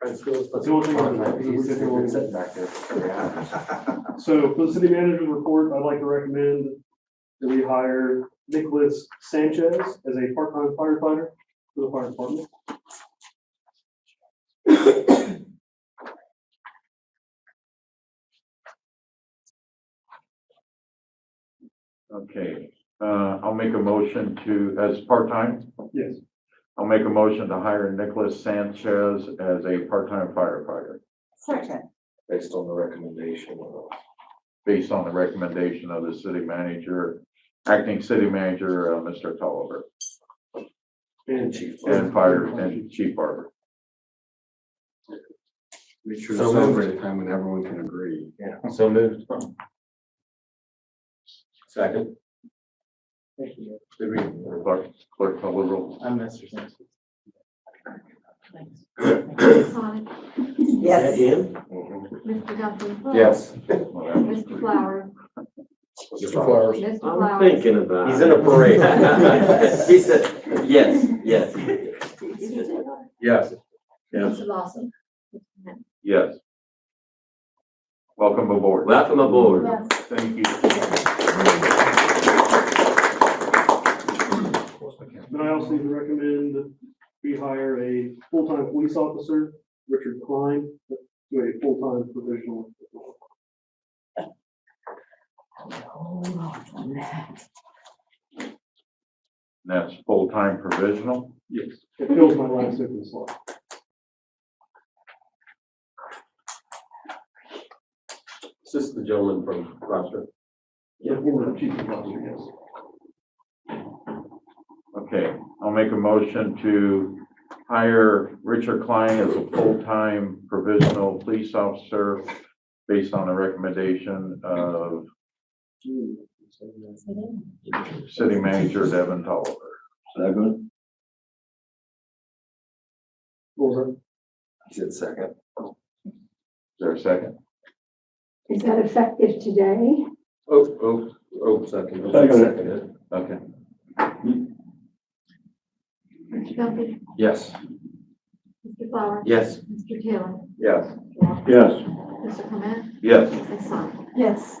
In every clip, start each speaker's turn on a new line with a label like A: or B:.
A: That's the only thing I have.
B: back there.
A: So for the city manager's report, I'd like to recommend that we hire Nicholas Sanchez as a part-time firefighter for the fire department.
C: Okay, uh, I'll make a motion to, as part-time,
A: Yes.
C: I'll make a motion to hire Nicholas Sanchez as a part-time firefighter
D: Second,
B: Based on the recommendation of
C: based on the recommendation of the city manager, acting city manager, uh, Mr. Tolliver,
A: And
B: Chief.
C: and fire, and chief barber.
E: Make sure to
B: So moved.
E: celebrate a time when everyone can agree.
B: Yeah. So moved. Second. Did we?
C: Clerk, clerk call the roll.
F: I'm Mr. Sanchez.
G: Mrs. Sonic,
D: yes,
B: Mhm.
G: Mr. Duffy.
B: Yes.
G: Mr. Flower,
B: Mr. Flowers.
G: Mr.
H: I'm
G: Flower.
H: thinking about.
B: He's in a parade.
H: He said, yes, yes.
B: Yes.
G: Mr. Lawson.
C: Yes. Welcome aboard.
H: Welcome aboard.
G: Yes.
C: Thank you.
A: Then I also need to recommend we hire a full-time police officer, Richard Klein, to a full-time provisional.
C: And that's full-time provisional.
A: Yes. It fills my last open slot.
B: Is this the gentleman from Rochester?
A: Yeah. Former chief of officers, yes.
C: Okay, I'll make a motion to hire Richard Klein as a full-time provisional police officer based on the recommendation of city manager Devin Tolliver.
E: Second?
A: What was
B: He said second.
C: Is there a second?
G: Is that effective today?
B: Oh, oh, oh, second.
E: Second.
B: Seconded.
C: Okay,
G: Mr. Duffy,
B: Yes.
G: Mr. Flower.
H: Yes.
G: Mr. Taylor.
C: yes.
E: Yes.
G: Mr. Clement,
C: Yes.
G: Mrs. Sonic.
D: yes.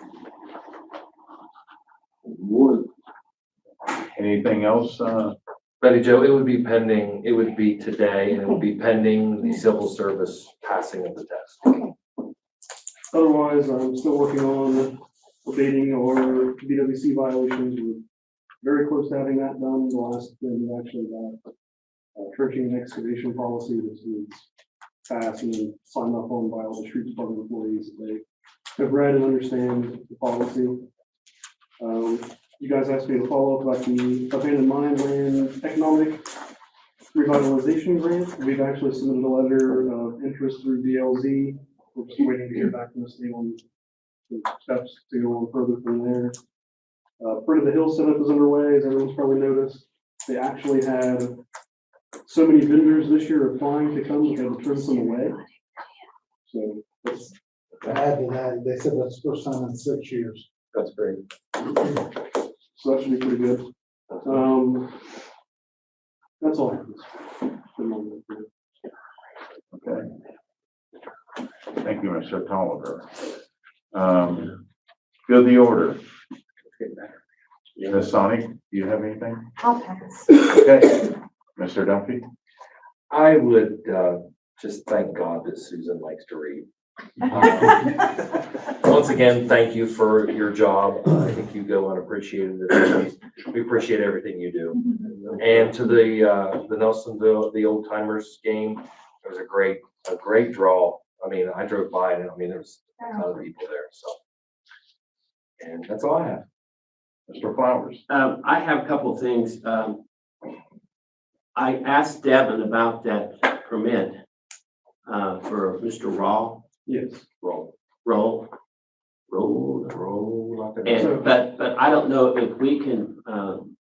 C: Anything else, uh,
B: Betty Joe, it would be pending, it would be today and it would be pending the civil service passing of the test.
A: that? Otherwise, I'm still working on abating or BWC violations. We're very close to having that done. The last thing we actually got, uh, trenching and excavation policy, which is passed and signed up on by all the street department employees. They have read and understand the policy. Um, you guys asked me to follow up about the abandoned mine land economic revitalization grant. We've actually submitted a letter of interest through DLZ. We're just waiting to hear back from the city on the steps to go on further from there. Uh, Fruit of the Hill setup is underway, as everyone's probably noticed. They actually had so many vendors this year applying to come, they had to turn some away. So that's
F: I had it, I- they said that's the first time in six years.
B: That's great.
A: So that should be pretty good. Um, that's all. I have. For the moment.
C: okay. Thank you, Mr. Tolliver. Um, good, the order. Ms. Sonic, do you have anything?
D: I'll pass.
C: Okay. Mr. Duffy?
B: I would, uh, just thank God that Susan likes to read. Once again, thank you for your job. Uh, I think you go unappreciated. at times. We appreciate everything you do. And to the, uh, the Nelsonville, the old timers game, it was a great, a great draw. I mean, I drove by and I mean, there was a ton of people there, so. And that's all I have.
C: Mr. Flowers?
H: Um, I have a couple of things. Um, I asked Devin about that permit, uh, for Mr. Rawl,
A: Yes,
B: Roll.
H: Roll.
B: Roll, roll. like a-
H: And, but, but I don't know if we can, um,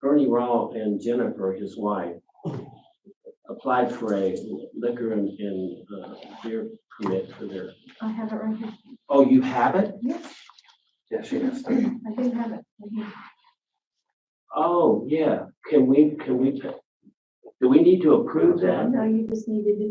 H: Bernie Rawl and Jennifer, his wife, applied for a liquor and, and, uh, beer permit for their,
G: I have it right here.
H: oh, you have it?
B: Yeah, she does.
G: I do have it. right here.
H: Oh, yeah. Can we, can we, do we need to approve that?
G: No, you just needed to